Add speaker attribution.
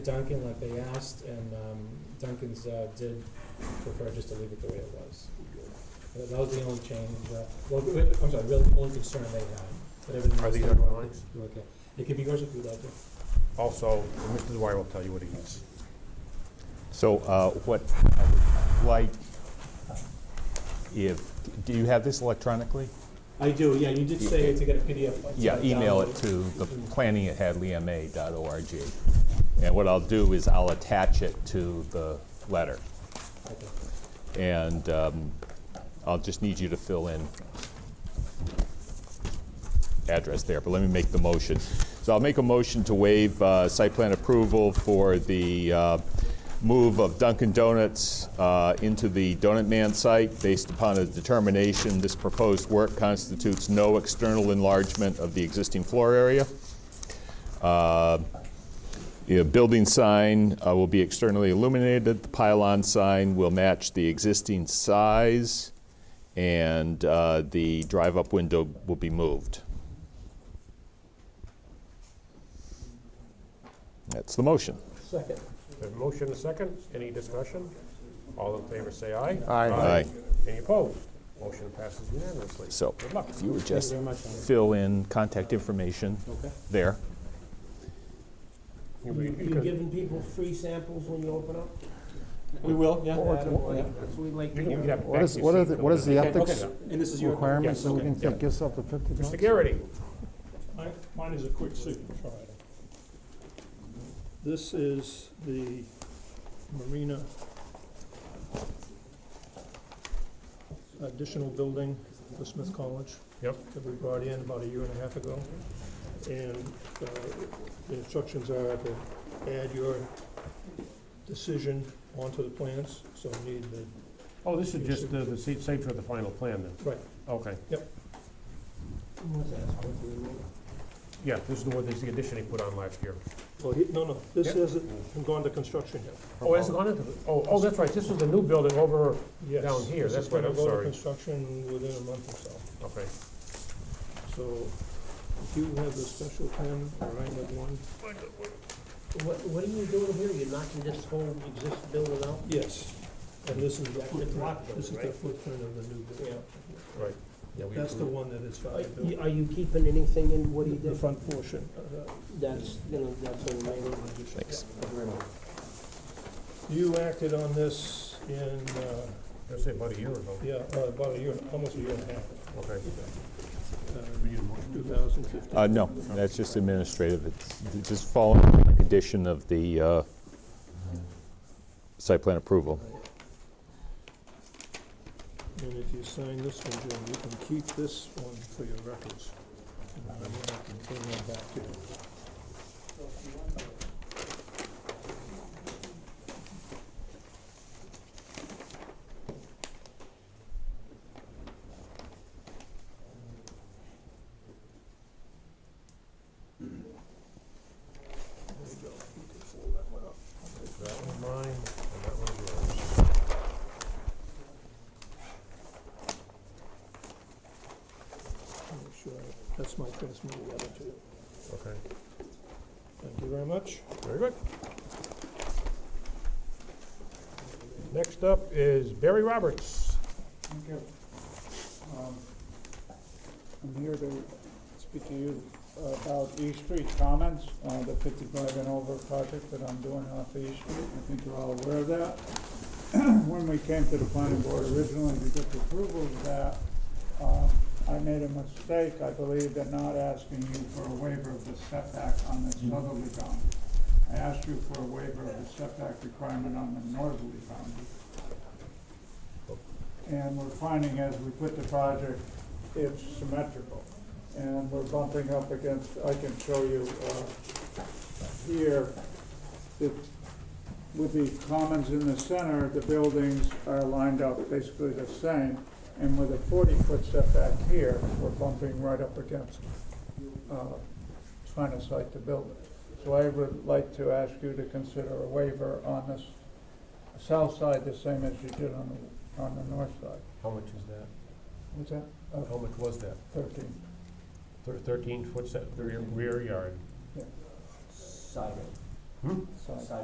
Speaker 1: Duncan like they asked, and um, Duncan's uh, did prefer just to leave it the way it was. That that was the only change, uh, well, wait, wait, I'm sorry, really, the only concern they had, but everything
Speaker 2: Are
Speaker 1: else.
Speaker 2: these
Speaker 1: they
Speaker 2: our
Speaker 1: were-
Speaker 2: drawings?
Speaker 1: Okay, it could be yours if you'd like to.
Speaker 2: Also, Mr. Dwyer will tell you what he needs.
Speaker 3: So uh, what, I would like, if, do you have this electronically?
Speaker 1: I do, yeah, you did say to get a PDF. like,
Speaker 3: Yeah,
Speaker 1: to
Speaker 3: email it
Speaker 1: download.
Speaker 3: to the planning at planning@hadleyma.org. And what I'll do is I'll attach it to the letter.
Speaker 1: Okay.
Speaker 3: And um, I'll just need you to fill in address there, but let me make the motion. So I'll make a motion to waive uh, site plan approval for the uh, move of Dunkin' Donuts uh, into the Donut Man site based upon a determination this proposed work constitutes no external enlargement of the existing floor area. Uh, the building sign uh, will be externally illuminated. The pylon sign will match the existing size, and uh, the drive-up window will be moved. That's the motion.
Speaker 1: Second.
Speaker 2: A motion, a second, any discussion? All in favor, say aye.
Speaker 4: Aye.
Speaker 3: Aye.
Speaker 2: Any opposed? Motion passes unanimously.
Speaker 3: So
Speaker 2: Good luck.
Speaker 3: if you would
Speaker 1: Thank you
Speaker 3: just
Speaker 1: very much, Alan.
Speaker 3: fill in contact information
Speaker 1: Okay.
Speaker 3: there.
Speaker 2: You-
Speaker 5: You
Speaker 2: you- you
Speaker 5: you
Speaker 2: could-
Speaker 5: giving people free samples when you open up?
Speaker 1: We will, yeah.
Speaker 4: Or-
Speaker 1: yeah,
Speaker 4: or-
Speaker 1: yeah.
Speaker 5: That's what we like to
Speaker 2: you could
Speaker 5: do.
Speaker 2: have
Speaker 4: What
Speaker 2: back
Speaker 4: is,
Speaker 2: your
Speaker 4: what are,
Speaker 2: seat
Speaker 4: the-
Speaker 2: filled
Speaker 4: what is
Speaker 2: in.
Speaker 4: the
Speaker 1: Okay,
Speaker 4: ethics
Speaker 1: okay. And this is your.
Speaker 4: requirement, so we
Speaker 2: Yes,
Speaker 4: can
Speaker 2: okay.
Speaker 4: take yourself to fifty bucks?
Speaker 2: Mr. Garrity,
Speaker 6: Mine- Mine is a quick signature item. This is the marina additional building for Smith College.
Speaker 2: Yep.
Speaker 6: That we brought in about a year and a half ago. And uh, the instructions are to add your decision onto the plans, so you need the,
Speaker 2: oh, this is just the, the seat safe for the final plan then?
Speaker 6: right,
Speaker 2: Okay,
Speaker 5: What's that, supposed to be?
Speaker 2: yeah, this is the one, this is the addition he put on last year.
Speaker 6: well, Oh, he- no, no, this
Speaker 2: Yep.
Speaker 6: hasn't gone to construction yet.
Speaker 2: Oh, has it gone into, the- oh, oh, that's right, this is the new building over,
Speaker 6: Yes,
Speaker 2: Down here,
Speaker 6: this
Speaker 2: that's
Speaker 6: is
Speaker 2: right,
Speaker 6: gonna
Speaker 2: I'm
Speaker 6: go to
Speaker 2: sorry.
Speaker 6: Construction within a month or so.
Speaker 2: okay.
Speaker 6: So if you have the special pen, or I have one,
Speaker 5: What, what are you doing here? You're knocking this whole existing building out?
Speaker 6: yes. And this is the
Speaker 5: That's the
Speaker 6: footprint,
Speaker 5: block
Speaker 6: this is
Speaker 5: building,
Speaker 6: the
Speaker 5: right?
Speaker 6: footprint of the new building.
Speaker 2: Right. Yeah, we
Speaker 6: That's the
Speaker 2: approved.
Speaker 6: one that is
Speaker 5: Are
Speaker 6: valuable.
Speaker 5: you- Are you keeping anything in what he
Speaker 6: The
Speaker 5: did?
Speaker 6: front portion. uh,
Speaker 5: That's, you know, that's what we made.
Speaker 3: Thanks.
Speaker 6: You acted on this in, uh,
Speaker 2: That's it, about a year ago.
Speaker 6: yeah, uh, about a year, almost a year and a half, uh,
Speaker 2: Okay.
Speaker 6: two thousand fifteen.
Speaker 3: Uh, no, that's just administrative. It's just following the condition of the uh, site plan approval.
Speaker 6: And if you sign this one, Jim, you can keep this one for your records. And then I can bring them back to you.
Speaker 2: That one mine, and that one yours.
Speaker 6: Make sure, that's my transmittal letter to you.
Speaker 2: Okay,
Speaker 6: Thank you very much.
Speaker 2: very good. Next up is Barry Roberts.
Speaker 7: Thank you. Um, I'm here to speak to you uh, about East Street Commons, uh, the 55 and over project that I'm doing off East Street. I think you're all aware of that. When we came to the planning board originally to get the approval of that, uh, I made a mistake, I believe, in not asking you for a waiver of the setback on the southerly boundary. I asked you for a waiver of the setback requirement on the northerly boundary. And we're finding as we put the project, it's symmetrical. And we're bumping up against, I can show you uh, here, that with the commons in the center, the buildings are lined up basically the same. And with a 40-foot setback here, we're bumping right up against uh, trying to site the building. So I would like to ask you to consider a waiver on this south side, the same as you did on the, on the north side.
Speaker 2: How much is that?
Speaker 7: What's that?
Speaker 2: How
Speaker 7: Uh,
Speaker 2: much was that?
Speaker 7: Thirteen.
Speaker 2: Thir- Thirteen foot set, rear- rear yard.
Speaker 5: Side.
Speaker 2: Hmm?
Speaker 7: Side.